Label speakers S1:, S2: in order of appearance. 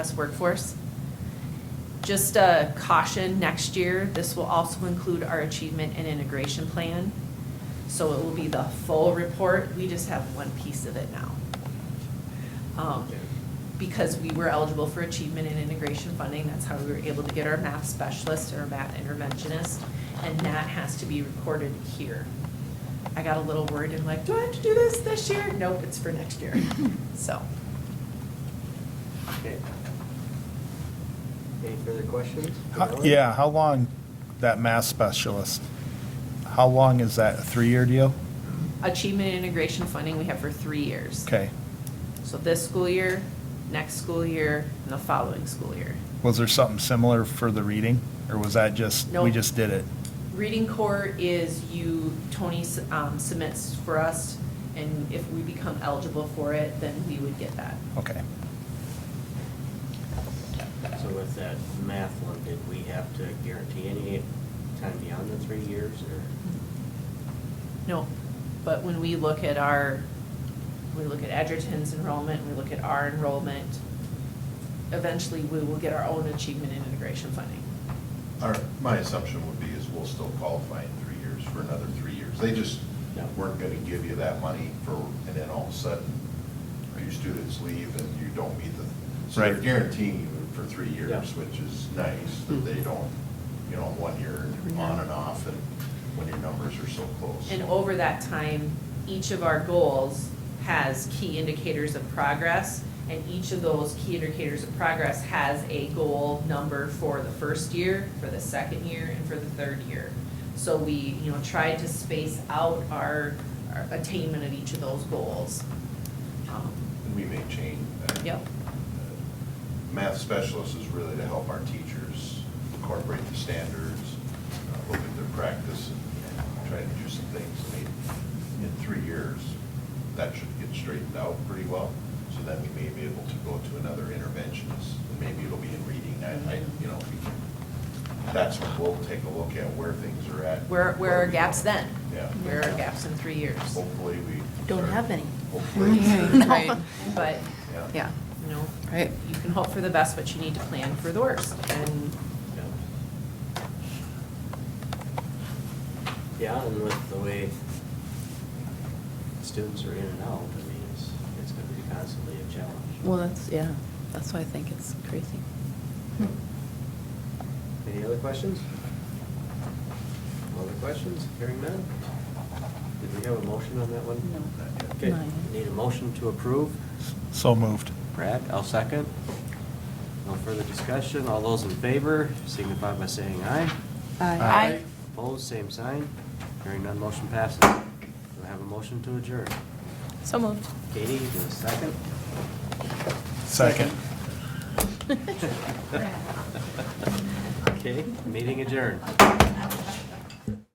S1: U.S. workforce. Just a caution, next year, this will also include our achievement and integration plan. So it will be the full report, we just have one piece of it now. Um, Because we were eligible for achievement and integration funding, that's how we were able to get our math specialist or math interventionist, and that has to be recorded here. I got a little worried and like, do I have to do this this year? Nope, it's for next year, so.
S2: Okay. Any further questions?
S3: How- Yeah, how long, that math specialist, how long is that, a three-year deal?
S1: Achievement and integration funding we have for three years.
S3: Okay.
S1: So this school year, next school year, and the following school year.
S3: Was there something similar for the reading, or was that just,
S1: Nope.
S3: we just did it?
S1: Reading core is you, Tony s- um, submits for us, and if we become eligible for it, then we would get that.
S3: Okay.
S2: So with that math one, did we have to guarantee any time beyond the three years or?
S1: No, but when we look at our, we look at Edgerton's enrollment, we look at our enrollment, eventually we will get our own achievement and integration funding.
S4: Our, my assumption would be is we'll still qualify in three years for another three years. They just
S2: Yeah.
S4: weren't gonna give you that money for, and then all of a sudden, your students leave and you don't meet the, so they're
S3: Right.
S4: guaranteeing you for three
S2: Yeah. Hmm.
S4: years, which is nice, that they don't, you know, one year on and off, and when your numbers are so close.
S1: And over that time, each of our goals has key indicators of progress, and each of those key indicators of progress has a goal number for the first year, for the second year, and for the third year. So we, you know, tried to space out our our attainment of each of those goals. Um,
S4: And we may change that. Uh,
S1: Yep.
S4: Math specialist is really to help our teachers incorporate the standards, uh, look at their practice, and try to do some things. I mean, in three years, that should get straightened out pretty well, so then we may be able to go to another interventionist, and maybe it'll be in reading, I, I,
S1: Mm-hmm.
S4: you know, we can, that's when we'll take a look at where things are at.
S1: Where, where are
S4: we
S1: gaps
S4: are.
S1: then?
S4: Yeah. Oh.
S1: Where are gaps in three years?
S4: Hopefully, we.
S5: Don't have many.
S4: Hopefully.
S1: Right, but,
S5: Yeah,
S1: you know,
S5: right.
S1: you can hope for the best, but you need to plan for the worst, and
S2: Yeah, and with the way students are in and out, I mean, it's, it's gonna be constantly a challenge.
S5: Well, that's, yeah, that's why I think it's crazy.
S2: Any other questions? Other questions? Hearing none? Did we have a motion on that one?
S5: No.
S2: Okay,
S5: Not yet.
S2: need a motion to approve?
S3: So moved.
S2: Brad, I'll second. No further discussion. All those in favor signify by saying aye.
S3: Aye.
S2: Opposed, same sign. Hearing none, motion passes. Do I have a motion to adjourn?
S5: So moved.
S2: Katie, do a second?
S3: Second.
S2: Okay, meeting adjourned.